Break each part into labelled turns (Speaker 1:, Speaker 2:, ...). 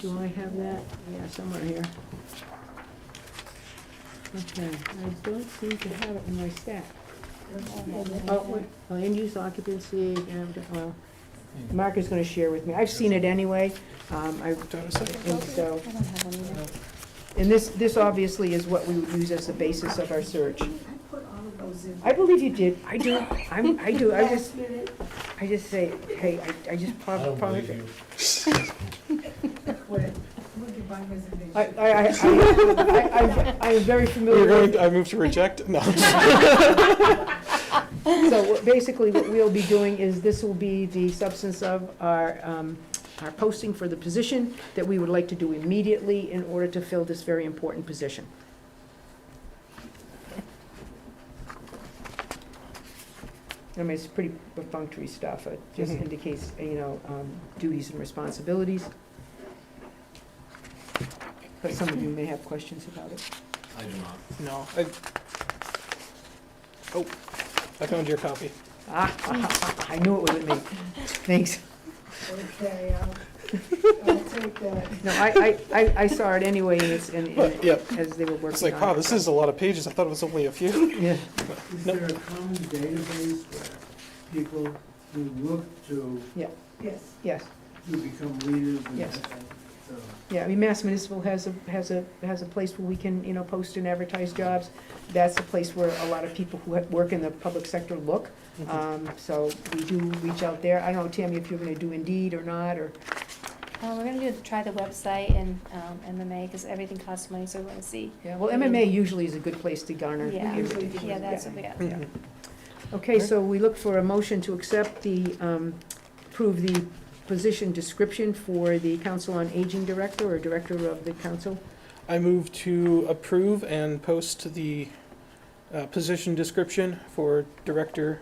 Speaker 1: Do I have that? Yeah, somewhere here. Okay, I don't seem to have it in my stack. Oh, wait, oh, end use occupancy, and, well,
Speaker 2: Mm.
Speaker 1: Mark is gonna share with me. I've seen it anyway. Um, I, and so,
Speaker 3: I don't have one either.
Speaker 1: and this, this obviously is what we would use as the basis of our search.
Speaker 4: I put all of those in.
Speaker 1: I believe you did. I do, I'm, I do, I just,
Speaker 4: Last minute,
Speaker 1: I just say, hey, I, I just
Speaker 2: I
Speaker 1: pop,
Speaker 2: don't
Speaker 1: pop
Speaker 2: believe
Speaker 1: it.
Speaker 2: you.
Speaker 4: where, look at my reservation.
Speaker 1: I, I, I, I, I'm- I'm very familiar with
Speaker 2: I move to reject? No.
Speaker 1: So what- basically, what we'll be doing is, this will be the substance of our, um, our posting for the position that we would like to do immediately in order to fill this very important position. I mean, it's pretty perfunctory stuff. It just
Speaker 2: Mhm.
Speaker 1: indicates, you know, um, duties and responsibilities. But some of you may have questions about it.
Speaker 5: I do not.
Speaker 2: No. I- Oh, I found your copy.
Speaker 1: Ah, I knew it wasn't me. Thanks.
Speaker 4: Okay, uh, I'll, I'll take that.
Speaker 1: No, I, I, I, I saw it anyway, and it's, and,
Speaker 2: But, yeah,
Speaker 1: as they were working on it.
Speaker 2: it's like, wow, this is a lot of pages. I thought it was only a few.
Speaker 1: Yeah,
Speaker 6: Is
Speaker 2: No.
Speaker 6: there a common database where people who look to,
Speaker 4: Yes,
Speaker 1: yes,
Speaker 6: to become leaders and
Speaker 1: Yes.
Speaker 6: and, so-
Speaker 1: yeah, I mean, Mass Municipal has a, has a, has a place where we can, you know, post and advertise jobs. That's a place where a lot of people who have- work in the public sector look,
Speaker 2: Mm-hmm.
Speaker 1: um, so we do reach out there. I don't know, Tammy, if you're gonna do Indeed or not, or,
Speaker 3: Uh, we're gonna do, try the website and, um, MMA, because everything costs money, so we're gonna see.
Speaker 1: yeah, well, MMA usually is a good place to garner.
Speaker 3: Yeah,
Speaker 1: everything.
Speaker 3: yeah, that's what we got.
Speaker 2: Mm-hmm.
Speaker 1: Yeah. Okay, so we look for a motion to accept the, um, approve the position description for the Council on Aging Director or Director of the Council.
Speaker 2: I move to approve and post the uh, position description for director,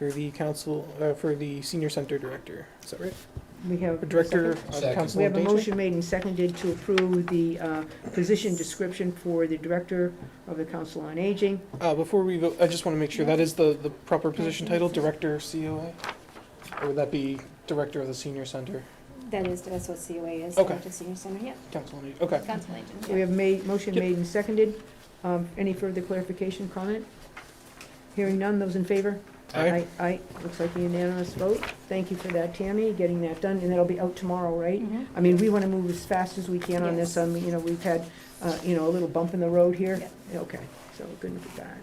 Speaker 2: for the council, uh, for the senior center director. Is that right?
Speaker 1: We have.
Speaker 2: Or
Speaker 1: a
Speaker 2: Director
Speaker 1: second?
Speaker 2: of
Speaker 5: Second.
Speaker 2: council
Speaker 1: We have a
Speaker 2: engagement?
Speaker 1: motion made and seconded to approve the uh, position description for the Director of the Council on Aging.
Speaker 2: Uh, before we vote, I just want to make sure that is the, the proper position
Speaker 1: Mm-hmm.
Speaker 2: title, Director of COA? Or would that be Director of the Senior Center,
Speaker 3: That is, that's what COA is,
Speaker 2: Okay.
Speaker 3: Active Senior Center, yeah,
Speaker 2: Council on Aging? Okay.
Speaker 3: council agent,
Speaker 1: We
Speaker 3: yeah.
Speaker 1: have made, motion
Speaker 2: Yep.
Speaker 1: made and seconded. Um, Any further clarification, comment? Hearing none, those in favor?
Speaker 2: Aye.
Speaker 1: Aye, looks like a unanimous vote. Thank you for that, Tammy, getting that done, and that'll be out tomorrow, right?
Speaker 3: Mhm.
Speaker 1: I mean, we want to move as fast as we can on this, um, you know, we've had, uh, you know, a little bump in the road here. Okay, so we're good with that.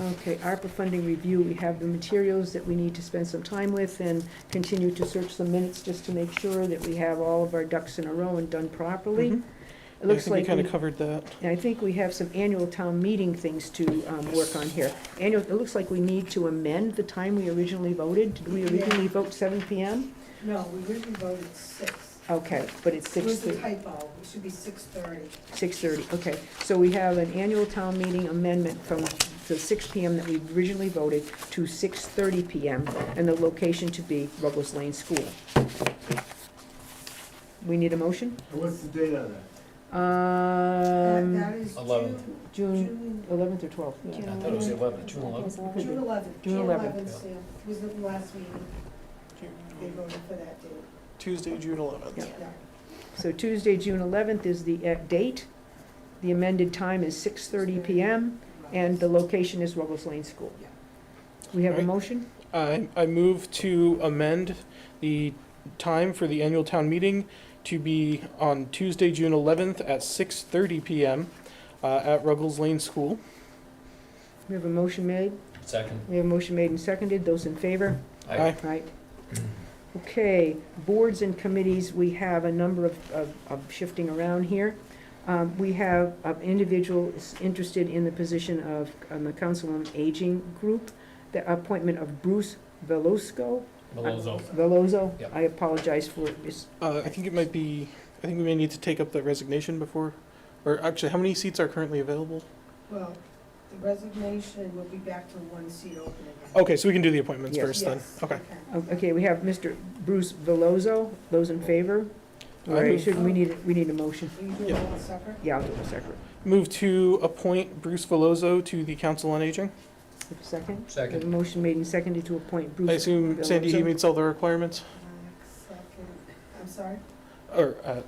Speaker 1: Okay, ARPA funding review, we have the materials that we need to spend some time with and continue to search the minutes just to make sure that we have all of our ducks in a row and done properly.
Speaker 2: Mhm.
Speaker 4: Mm-hmm.
Speaker 1: It
Speaker 2: I
Speaker 1: looks
Speaker 2: think we
Speaker 1: like,
Speaker 2: kind
Speaker 1: we-
Speaker 2: of covered that.
Speaker 1: I think we have some annual town meeting things to, um, work on here. Annual, it looks like we need to amend the time we originally voted. Did we originally vote seven PM?
Speaker 4: no, we originally voted six.
Speaker 1: Okay, but it's
Speaker 4: It
Speaker 1: six.
Speaker 4: was a
Speaker 1: thirty.
Speaker 4: typo, it should be six thirty.
Speaker 1: 6:30, okay. So we have an annual town meeting amendment from the 6 PM that we originally voted to 6:30 PM, and the location to be Ruggles Lane School. We need a motion?
Speaker 6: And what's the date on
Speaker 1: Um,
Speaker 6: that?
Speaker 4: Uh, That is
Speaker 5: Eleventh.
Speaker 4: June,
Speaker 1: June
Speaker 4: June,
Speaker 1: 11th or 12th? yeah.
Speaker 3: June
Speaker 5: I thought it was
Speaker 3: 11th.
Speaker 5: 11, June
Speaker 3: I think it
Speaker 5: 11.
Speaker 3: was 11th.
Speaker 4: June eleventh.
Speaker 1: June 11th.
Speaker 4: yeah. Was the last meeting, they voted for that date.
Speaker 2: Tuesday, June eleventh.
Speaker 4: Yeah.
Speaker 1: So Tuesday, June 11th is the uh, date. The amended time is 6:30 PM, and the location is Ruggles Lane School.
Speaker 4: Yeah.
Speaker 1: We have a
Speaker 2: Right.
Speaker 1: motion?
Speaker 2: I, I move to amend the time for the annual town meeting to be on Tuesday, June eleventh at six thirty PM, uh, at Ruggles Lane School.
Speaker 1: We have a motion made.
Speaker 5: Second.
Speaker 1: We have a motion made and seconded. Those in favor?
Speaker 2: Aye.
Speaker 1: Right. Okay, boards and committees, we have a number of, of, of shifting around here. Um, we have an individual is interested in the position of, on the Council on Aging Group, the appointment of Bruce Velosco,
Speaker 5: Malozzo.
Speaker 1: Veloso.
Speaker 5: Yep.
Speaker 1: I apologize for, it's,
Speaker 2: Uh, I think it might be, I think we may need to take up the resignation before, or actually, how many seats are currently available?
Speaker 4: Well, the resignation will be back to one seat open again.
Speaker 2: Okay, so we can do the appointments
Speaker 1: Yes.
Speaker 2: Oh, first then.
Speaker 4: Yes,
Speaker 2: Okay.
Speaker 1: um, okay, we have Mr. Bruce Veloso, those in favor?
Speaker 2: I
Speaker 1: All right,
Speaker 2: move-
Speaker 1: should, we need, we need a motion.
Speaker 4: Will you do it
Speaker 2: Yeah.
Speaker 4: all separate?
Speaker 1: Yeah, I'll do it separate.
Speaker 2: Move to appoint Bruce Veloso to the Council on Aging.
Speaker 1: Second? We have a
Speaker 5: Second.
Speaker 1: motion made and seconded to appoint Bruce.
Speaker 2: I assume Sandy, he
Speaker 1: Veloso.
Speaker 2: meets all the requirements.
Speaker 4: Second, I'm sorry?
Speaker 2: or, uh,